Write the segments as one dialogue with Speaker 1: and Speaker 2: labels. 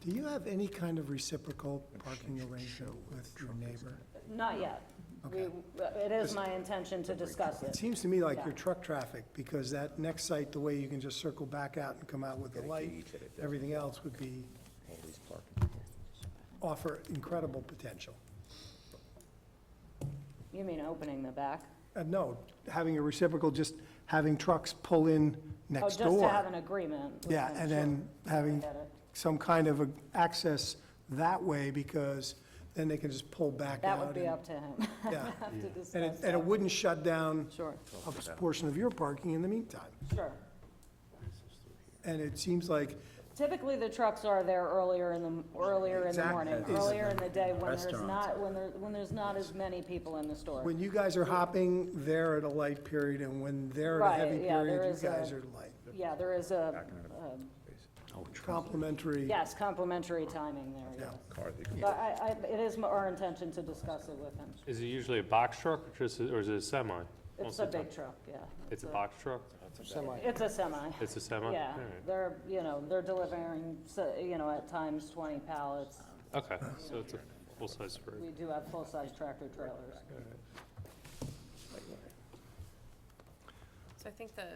Speaker 1: Do you have any kind of reciprocal parking arrangement with your neighbor?
Speaker 2: Not yet. We,
Speaker 1: Okay.
Speaker 2: it is my intention to discuss
Speaker 1: It
Speaker 2: it.
Speaker 1: seems to me like your
Speaker 2: Yeah.
Speaker 1: truck traffic, because that next site, the way you can just circle back out and come out with the light, everything else would be,
Speaker 3: Always parking.
Speaker 1: offer incredible potential.
Speaker 2: You mean opening the back?
Speaker 1: Uh, no, having a reciprocal, just having trucks pull in
Speaker 2: Oh,
Speaker 1: next
Speaker 2: just
Speaker 1: door.
Speaker 2: to have an agreement. with
Speaker 1: Yeah,
Speaker 2: them,
Speaker 1: and
Speaker 2: sure.
Speaker 1: then having
Speaker 2: Get it.
Speaker 1: some kind of a- access that way, because then they can just pull back out.
Speaker 2: That would be
Speaker 1: and-
Speaker 2: up to him.
Speaker 1: Yeah,
Speaker 2: Have to
Speaker 1: and it,
Speaker 2: discuss
Speaker 1: and it
Speaker 2: that.
Speaker 1: wouldn't shut down
Speaker 2: Sure,
Speaker 1: a portion of your parking in the meantime.
Speaker 2: sure.
Speaker 1: And it seems like,
Speaker 2: Typically, the trucks are there earlier in the, earlier in the
Speaker 1: Exactly.
Speaker 2: morning,
Speaker 1: Is-
Speaker 2: earlier in the day when there's
Speaker 4: Restaurants.
Speaker 2: not, when there, when there's not as many people in the store.
Speaker 1: when you guys are hopping, they're at a light period, and when they're at a heavy
Speaker 2: Right, yeah, there
Speaker 1: period,
Speaker 2: is
Speaker 1: you
Speaker 2: a-
Speaker 1: guys are light.
Speaker 2: Yeah, there is a, um,
Speaker 1: Complimentary.
Speaker 2: yes, complimentary timing there,
Speaker 1: Yeah.
Speaker 2: yes. But I, I, it is our intention to discuss it with him.
Speaker 5: Is it usually a box truck or just, or is it a semi?
Speaker 2: It's
Speaker 5: Most
Speaker 2: a
Speaker 5: of the time.
Speaker 2: big truck, yeah.
Speaker 5: It's a box truck?
Speaker 2: It's a semi.
Speaker 5: It's a semi?
Speaker 2: Yeah,
Speaker 5: All right.
Speaker 2: they're, you know, they're delivering, so- you know, at times 20 pallets.
Speaker 5: Okay, so it's a full-size rig.
Speaker 2: We do have full-size tractor trailers.
Speaker 6: So I think the,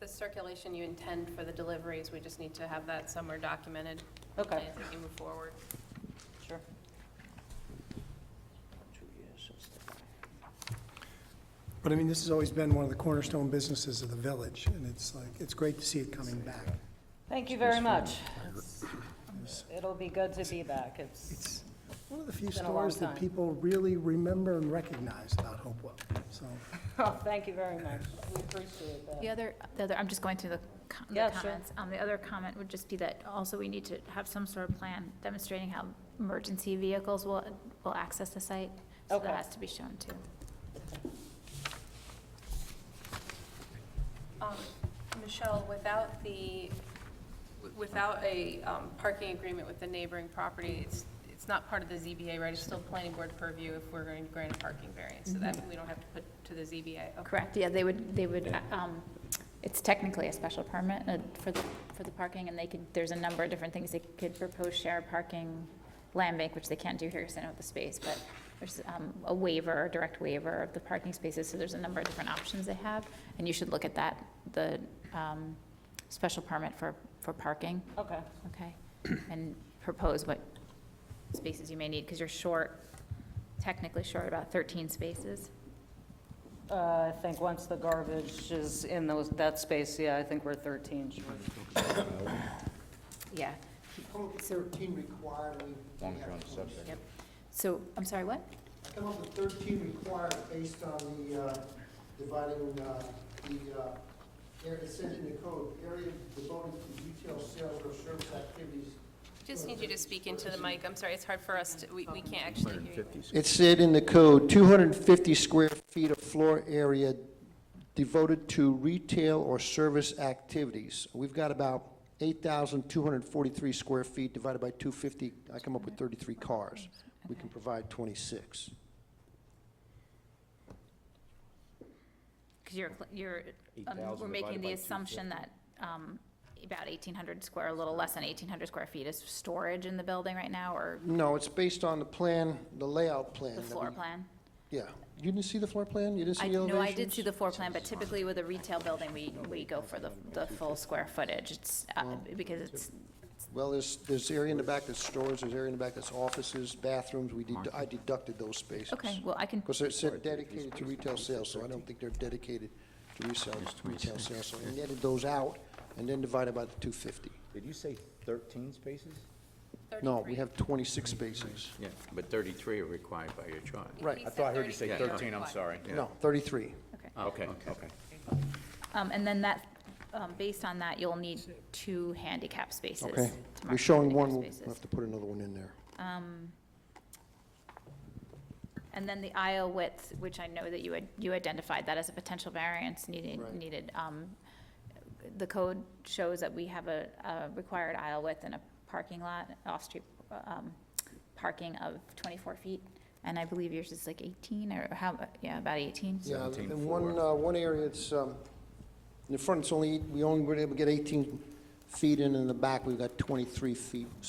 Speaker 6: the circulation you intend for the deliveries, we just need to have that somewhere documented.
Speaker 2: Okay.
Speaker 6: As we move forward.
Speaker 2: Sure.
Speaker 1: But I mean, this has always been one of the cornerstone businesses of the village, and it's like, it's great to see it coming back.
Speaker 2: Thank you very much. It'll be good to be back. It's,
Speaker 1: It's one of the few
Speaker 2: It's been a long
Speaker 1: stores that
Speaker 2: time.
Speaker 1: people really remember and recognize about Hopewell, so.
Speaker 2: oh, thank you very much. We appreciate that.
Speaker 7: The other, the other, I'm just going through the co-
Speaker 2: Yeah,
Speaker 7: the
Speaker 2: sure.
Speaker 7: comments. Um, The other comment would just be that also we need to have some sort of plan demonstrating how emergency vehicles will, will access the site. So
Speaker 2: Okay.
Speaker 7: that has to be shown too.
Speaker 6: Um, Michelle, without the, without a um, parking agreement with the neighboring property, it's, it's not part of the ZBA, right? It's still planning board purview if we're going to grant a parking variance, so that we don't have to put to the ZBA. Okay.
Speaker 7: Correct, yeah, they would, they would, uh, um, it's technically a special permit uh, for the, for the parking, and they could, there's a number of different things they could propose, share parking, land bank, which they can't do here because they don't have the space, but there's um, a waiver, a direct waiver of the parking spaces, so there's a number of different options they have, and you should look at that, the um, special permit for, for parking,
Speaker 2: Okay,
Speaker 7: okay? And propose what spaces you may need, because you're short, technically short about 13 spaces.
Speaker 2: Uh, I think once the garbage is in those, that space, yeah, I think we're 13 short.
Speaker 7: Yeah,
Speaker 8: Come up with thirteen required, we.
Speaker 3: Long as you're on the subject.
Speaker 7: yep. So, I'm sorry, what?
Speaker 8: I come up with thirteen required based on the, uh, dividing, uh, the, uh, area, it said in the code, area devoted to retail sales or service activities.
Speaker 6: Just need you to speak into the mic. I'm sorry, it's hard for us to, we, we can't actually hear you.
Speaker 8: It said in the code, two hundred and fifty square feet of floor area devoted to retail or service activities. We've got about eight thousand two hundred and forty-three square feet divided by two fifty, I come up with thirty-three cars. We can provide twenty-six.
Speaker 7: Because you're, cl- you're, um,
Speaker 3: 8,000
Speaker 7: we're making
Speaker 3: divided
Speaker 7: the
Speaker 3: by
Speaker 7: assumption that um, about 1,800 square, a little less than 1,800 square feet is storage in the building right now, or
Speaker 8: No, it's based on the plan, the layout plan.
Speaker 7: the
Speaker 8: that
Speaker 7: floor
Speaker 8: we-
Speaker 7: plan?
Speaker 8: Yeah. You didn't see the floor plan? You didn't
Speaker 7: I,
Speaker 8: see the elevations?
Speaker 7: no, I did see the floor plan, but typically with a retail building, we, we go for the, the full square footage. It's, uh, because it's,
Speaker 8: Well, there's, there's area in the back that's stores, there's area in the back that's offices, bathrooms. We did, I deducted those spaces.
Speaker 7: okay, well, I can,
Speaker 8: Because it said dedicated to retail sales, so I don't think they're dedicated to resale, retail sales. So I netted those out and then divided by the two fifty.
Speaker 3: Did you say thirteen spaces?
Speaker 8: No,
Speaker 6: 33.
Speaker 8: we have twenty-six spaces.
Speaker 9: Yeah, but 33 are required by your chart.
Speaker 8: Right.
Speaker 6: He
Speaker 3: I
Speaker 6: said
Speaker 3: thought I heard you say
Speaker 6: 33.
Speaker 3: thirteen, I'm sorry.
Speaker 8: No, thirty-three.
Speaker 7: okay.
Speaker 9: Okay, okay.
Speaker 7: Um, And then that, um, based on that, you'll need two handicap spaces.
Speaker 8: Okay.
Speaker 7: to
Speaker 8: We're
Speaker 7: mark
Speaker 8: showing
Speaker 7: handicap
Speaker 8: one, we'll
Speaker 7: spaces.
Speaker 8: have to put another one in there.
Speaker 7: Um, And then the aisle width, which I know that you had, you identified that as a potential variance needed,
Speaker 8: Right.
Speaker 7: needed. um, The code shows that we have a, a required aisle width in a parking lot, off-street, um, parking of twenty-four feet. And I believe yours is like eighteen or how, yeah, about eighteen.
Speaker 8: Yeah,
Speaker 3: Seventeen
Speaker 8: in one,
Speaker 3: four.
Speaker 8: uh, one area, it's, um, in the front, it's only, we only were able to get 18 feet in, in the back, we've got 23 feet